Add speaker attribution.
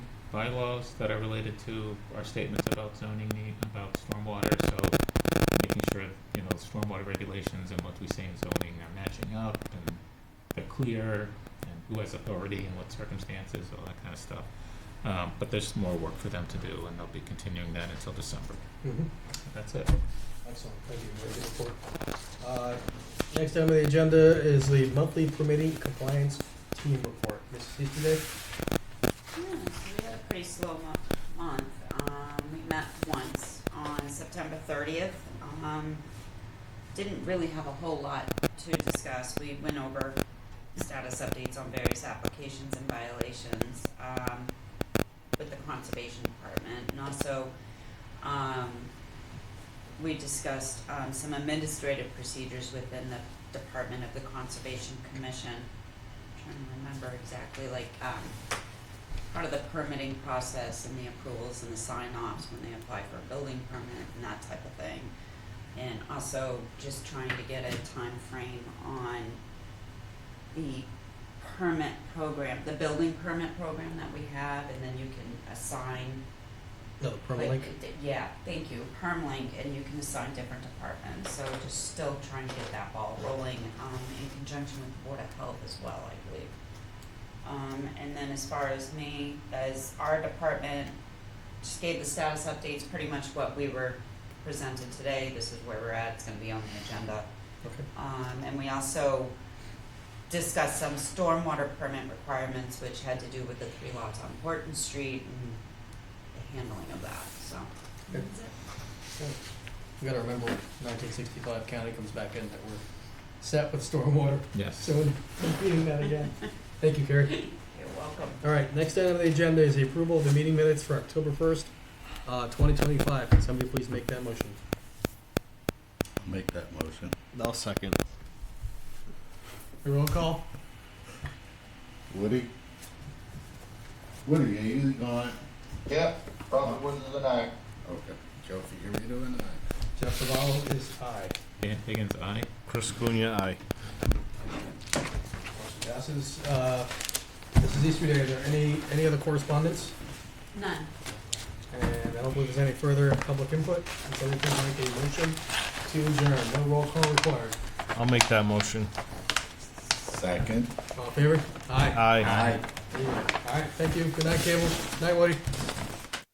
Speaker 1: bylaws that are related to our statements about zoning need, about stormwater, so making sure, you know, stormwater regulations and what we say in zoning are matching up and they're clear and who has authority and what circumstances, all that kind of stuff. Um, but there's more work for them to do and they'll be continuing that until December.
Speaker 2: Mhm.
Speaker 1: That's it.
Speaker 2: Excellent, thank you, very good report. Uh, Next item on the agenda is the monthly permitting compliance team report. Mrs. Easterday?
Speaker 3: Yeah, so Hmm, we had a pretty slow mo- month. Um, we met once on September thirtieth. Um, didn't really have a whole lot to discuss. We went over status updates on various applications and violations, um, with the conservation department and also, um, we discussed, um, some administrative procedures within the Department of the Conservation Commission. Trying to remember exactly, like, um, part of the permitting process and the approvals and the sign-offs when they apply for a building permit and that type of thing. And also just trying to get a time frame on the permit program, the building permit program that we have, and then you can assign.
Speaker 2: No, the permit link.
Speaker 3: like, d- Yeah, thank you, permalink, and you can assign different departments, so just still trying to get that ball rolling, um, in conjunction with Board of Health as well, I believe. Um, and then as far as me, as our department, just gave the status updates, pretty much what we were presented today, this is where we're at, it's gonna be on the agenda.
Speaker 2: Okay.
Speaker 3: Um, and we also discussed some stormwater permit requirements, which had to do with the three lots on Horton Street and the handling of that, so.
Speaker 2: Okay. We gotta remember nineteen sixty-five county comes back in that we're set with stormwater,
Speaker 1: Yes.
Speaker 2: so we're reading that again. Thank you, Carrie.
Speaker 3: You're welcome.
Speaker 2: All right, next item on the agenda is the approval of the meeting minutes for October first, uh, twenty twenty-five. Can somebody please make that motion?
Speaker 4: I'll Make that motion.
Speaker 5: I'll second.
Speaker 2: A roll call?
Speaker 4: Woody? Woody, are you gone?
Speaker 6: Yep, Robert Woods is an aye.
Speaker 4: Okay. Joe Figurito and I.
Speaker 2: Jeff Saval is aye.
Speaker 1: Dan Higgins, aye.
Speaker 5: Chris Cunha, aye.
Speaker 2: Motion passes. Uh, Mrs. Easterday, are there any, any other correspondence?
Speaker 3: None.
Speaker 2: And I don't believe there's any further public input. Can somebody please make a motion to adjourn? No roll call required.
Speaker 5: I'll make that motion.
Speaker 4: Second.
Speaker 2: All in favor? Aye.
Speaker 5: Aye.
Speaker 2: All right, thank you. Good night, Cable. Night, Woody.